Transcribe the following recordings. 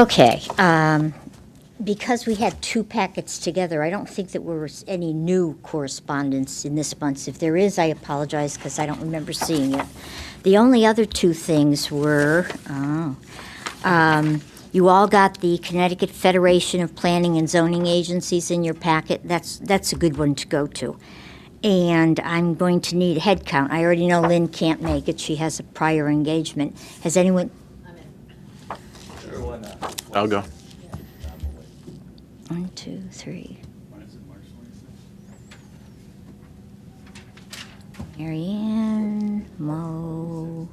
Okay, um, because we had two packets together, I don't think that there was any new correspondence in this month's. If there is, I apologize, because I don't remember seeing it. The only other two things were, oh, um, you all got the Connecticut Federation of Planning and Zoning Agencies in your packet. That's, that's a good one to go to. And I'm going to need a head count. I already know Lynn can't make it. She has a prior engagement. Has anyone, I'll go. One, two, three. Mary Ann, Mo,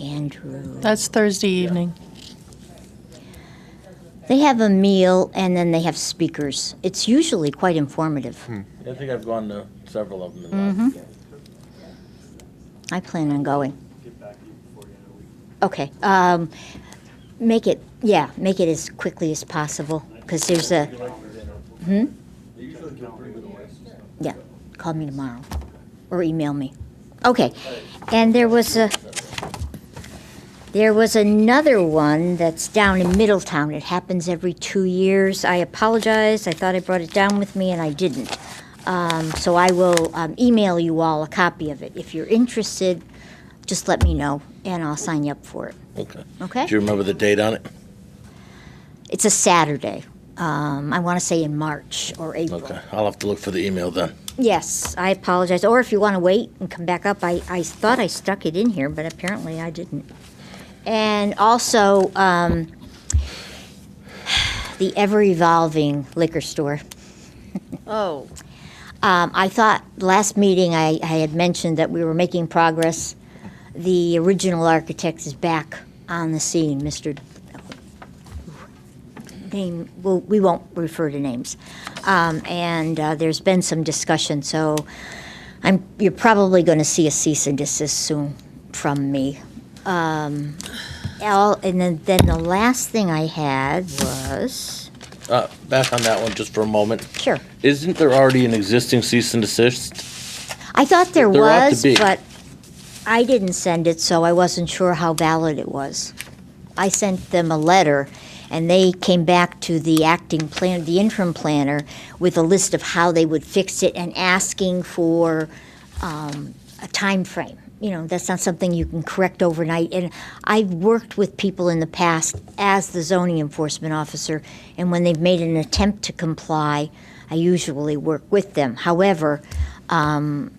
Andrew. That's Thursday evening. They have a meal and then they have speakers. It's usually quite informative. I think I've gone to several of them in the Mm-hmm. last year. I plan on going. Okay. Um, make it, yeah, make it as quickly as possible because there's a. Hmm? Yeah. Call me tomorrow or email me. Okay. And there was a. There was another one that's down in Middletown. It happens every two years. I apologize. I thought I brought it down with me and I didn't. Um, so I will um, email you all a copy of it. If you're interested, just let me know and I'll sign you up for it. Okay. Okay? Do you remember the date on it? It's a Saturday. Um, I want to say in March or April. Okay, I'll have to look for the email then. Yes, I apologize. Or if you want to wait and come back up, I, I thought I stuck it in here, but apparently I didn't. And also, um, the ever evolving liquor store. Oh. Um, I thought last meeting I, I had mentioned that we were making progress. The original architect is back on the scene, Mr. Name, well, we won't refer to names. Um, and uh, there's been some discussion, so I'm, you're probably going to see a cease and desist soon from me. Um, all, and then, then the last thing I had was, Uh, back on that one just for a moment. sure. Isn't there already an existing cease and desist? I thought there There ought to was, be. but I didn't send it, so I wasn't sure how valid it was. I sent them a letter, and they came back to the acting plan, the interim planner, with a list of how they would fix it and asking for um, a time frame. You know, that's not something you can correct overnight. And I've worked with people in the past as the zoning enforcement officer, and when they've made an attempt to comply, I usually work with them. However, um,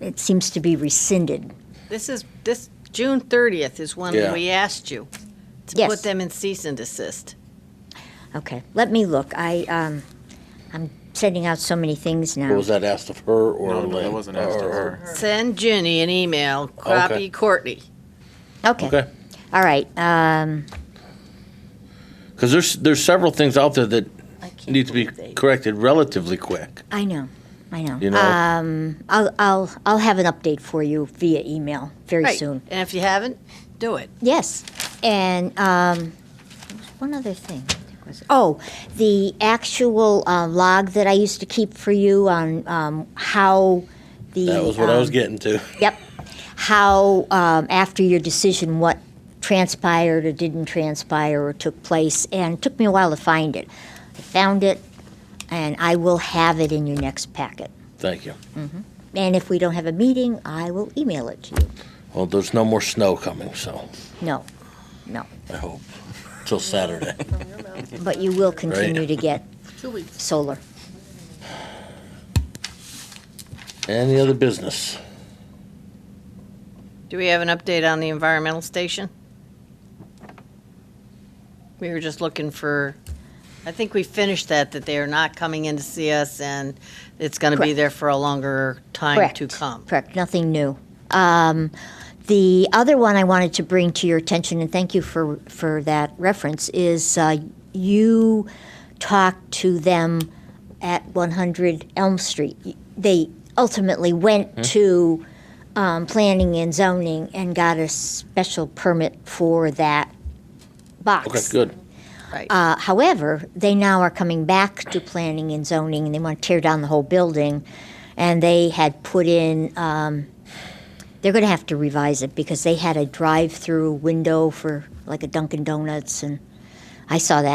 it seems to be rescinded. This is, this, June 30th is Yeah. when we asked you to Yes. put them in cease and desist. Okay, let me look. I um, I'm sending out so many things now. Or was that asked of her or No, no, Lynn? that wasn't asked of Or- her. Send Ginny an email, Okay. copy Courtney. Okay. Okay, All right. Um, because there's, there's several things out there that I can't need to be believe they- corrected relatively quick, I know. I know. you know? Um, I'll I'll I'll have an update for you via email very Right, soon. and if you haven't, do it. Yes, and um, there was one other thing. Oh, the actual uh, log that I used to keep for you on um, how the That was what I was um, getting to. Yep, how um, after your decision, what transpired or didn't transpire or took place, and it took me a while to find it. I found it, and I will have it in your next packet. Thank you. And if we don't have a meeting, I will email it to you. Well, there's no more snow coming, so No, no. I hope, till Saturday. But you will continue Right. to get solar. Any other business? Do we have an update on the environmental station? We were just looking for, I think we finished that, that they are not coming in to see us, and it's going to be Correct. there for a longer time to come. Correct, nothing new. Um, The other one I wanted to bring to your attention, and thank you for, for that reference, is uh, you talked to them at 100 Elm Street. They ultimately Hmm? went to um, planning and zoning and got a special permit for that box. Okay, good. Right. Uh, however, they now are coming back to planning and zoning, and they want to tear down the whole building. And they had put in, um, they're going to have to revise it because they had a drive-through window for like a Dunkin' Donuts and I saw that.